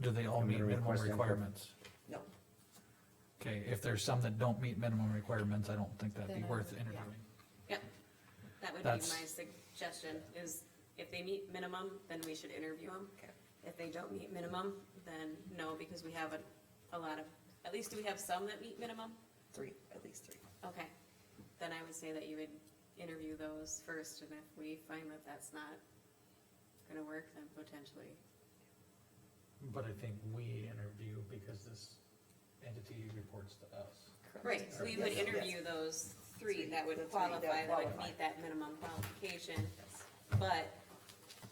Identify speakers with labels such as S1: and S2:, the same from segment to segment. S1: do they all
S2: I'm
S1: meet
S2: gonna
S1: minimum
S2: request input.
S1: requirements?
S3: No.
S1: Okay, if there's some that don't meet minimum requirements, I don't think that'd be
S4: Then I
S1: worth
S4: would- yeah.
S1: interviewing.
S5: That would be
S1: That's-
S5: my suggestion, is if they meet minimum, then we should interview them.
S3: Okay.
S5: If they don't meet minimum, then no, because we have a, a lot of, at least do we have some that meet minimum?
S3: three, at least three.
S5: Okay, then I would say that you would interview those first, and if we find that that's not gonna work, then potentially.
S1: But I think we interview because this entity reports to us.
S5: Right, so we would
S3: Yes, yes.
S5: interview those three that
S3: The
S5: would
S3: three that
S5: qualify, that would
S3: qualify.
S5: meet that minimum qualification, but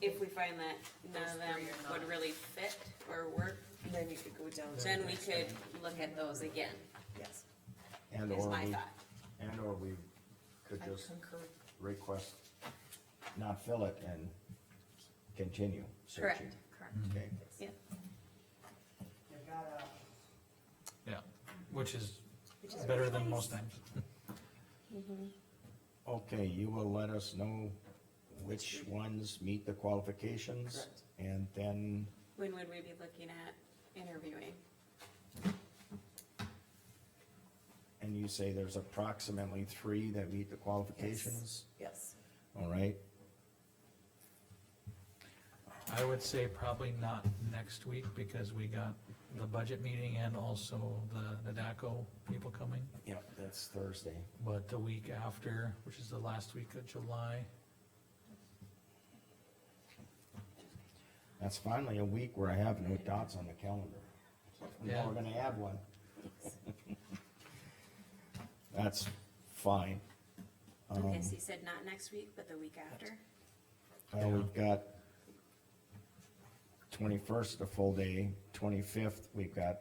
S5: if we find that none of
S4: Those
S5: them
S4: three are
S5: would
S4: not.
S5: really fit or work,
S3: And then you could go down to,
S5: then we could look at those again,
S3: yes,
S2: And
S5: is
S2: or
S5: my
S2: we,
S5: thought.
S2: and or we could
S4: I
S2: just
S4: concur.
S2: request, not fill it and continue
S5: Correct,
S2: searching.
S5: correct.
S2: Okay,
S5: Yeah,
S6: I've got a,
S1: Yeah, which is
S3: Which is
S1: better than most times.
S2: okay, you will let us know which ones meet the qualifications,
S3: Correct.
S2: and then
S5: when would we be looking at interviewing?
S2: And you say there's approximately three that meet the qualifications,
S3: yes.
S2: all right?
S1: I would say probably not next week because we got the budget meeting and also the NADACO people coming.
S2: Yep, that's Thursday.
S1: But the week after, which is the last week of July,
S2: That's finally a week where I have no dots on the calendar. Now we're gonna add one. That's fine.
S5: Okay,
S2: Um,
S5: so you said not next week, but the week after?
S2: Uh, we've got twenty-first, a full day, twenty-fifth, we've got,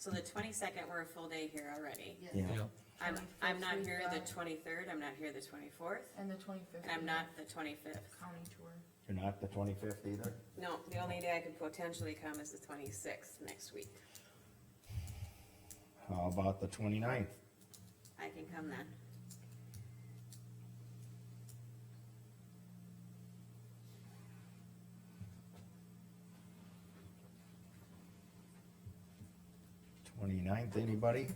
S5: So the twenty-second, we're a full day here already.
S4: Yes.
S2: yeah,
S1: yeah,
S5: I'm, I'm not
S4: 21st,
S5: here
S4: we've
S5: the
S4: got-
S5: twenty-third, I'm not here the twenty-fourth,
S4: And the twenty-fifth.
S5: and I'm not the twenty-fifth.
S4: County tour.
S2: you're not the twenty-fifth either?
S5: No, the only day I could potentially come is the twenty-sixth next week.
S2: How about the 29th?
S5: I can come then.
S2: Twenty-ninth, anybody?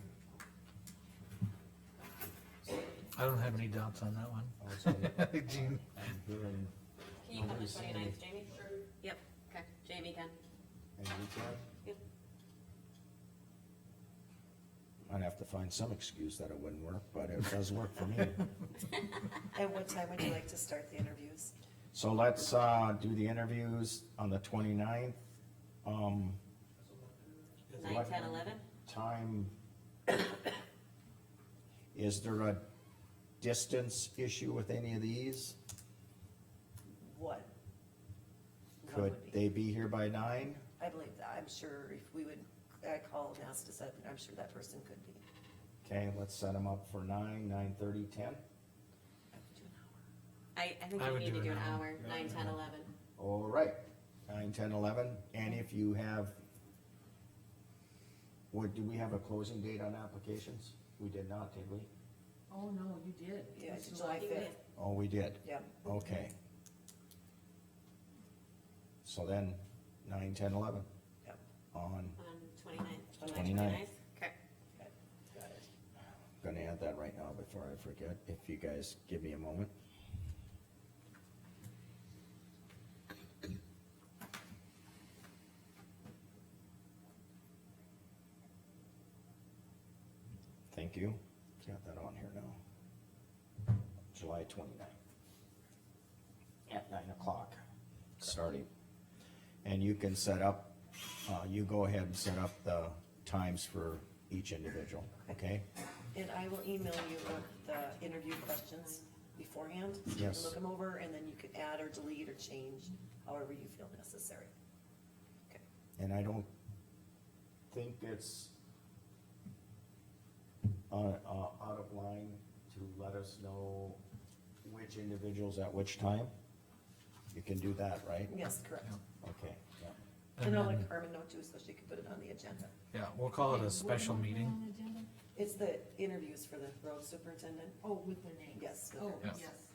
S1: I don't have any doubts on that one. Jean,
S2: I'm hearing,
S5: Can you come the twenty-ninth, Jamie? Sure. Yep, okay, Jamie can.
S2: and you can?
S5: Yep.
S2: I'd have to find some excuse that it wouldn't work, but it does work for me.
S3: At what time would you like to start the interviews?
S2: So let's, uh, do the interviews on the 29th. Um,
S5: Nine, ten, eleven?
S2: time. Is there a distance issue with any of these?
S3: What? What
S2: Could
S3: would be-
S2: they be here by nine?
S3: I believe that, I'm sure if we would, I call and ask to set, I'm sure that person could be.
S2: Okay, let's set them up for nine, nine-thirty, ten.
S5: I, I think
S1: I
S5: we
S1: would
S5: need
S1: do
S5: to
S1: it
S5: do an
S1: now.
S5: hour, nine, ten, eleven.
S2: All right, nine, ten, eleven, and if you have, what, do we have a closing date on applications? We did not, did we?
S4: Oh, no, you did.
S3: Yeah,
S4: It's
S3: July fifth,
S2: Oh, we did,
S3: yeah.
S2: okay. So then, nine, ten, eleven.
S3: Yep.
S2: On,
S5: On twenty-ninth.
S2: 29th.
S5: Okay,
S3: Got it.
S2: gonna add that right now before I forget, if you guys give me a moment. Thank you, got that on here now. July twenty-ninth. At nine o'clock, starting. And you can set up, uh, you go ahead and set up the times for each individual, okay?
S3: And I will email you what the interview questions beforehand. You can
S2: Yes.
S3: Look them over and then you can add or delete or change however you feel necessary. Okay.
S2: And I don't think it's uh, uh, out of line to let us know which individuals at which time. You can do that, right?
S3: Yes, correct.
S2: Okay, yeah.
S3: And
S1: and
S3: I'll
S1: then,
S3: let Carmen know too, so she can put it on the agenda.
S1: yeah, we'll call it a special
S4: Wasn't that
S1: meeting.
S4: on the agenda?
S3: It's the interviews for the road superintendent.
S4: Oh, with the names.
S3: Yes, with
S4: Oh,
S3: their
S1: names.
S4: yes.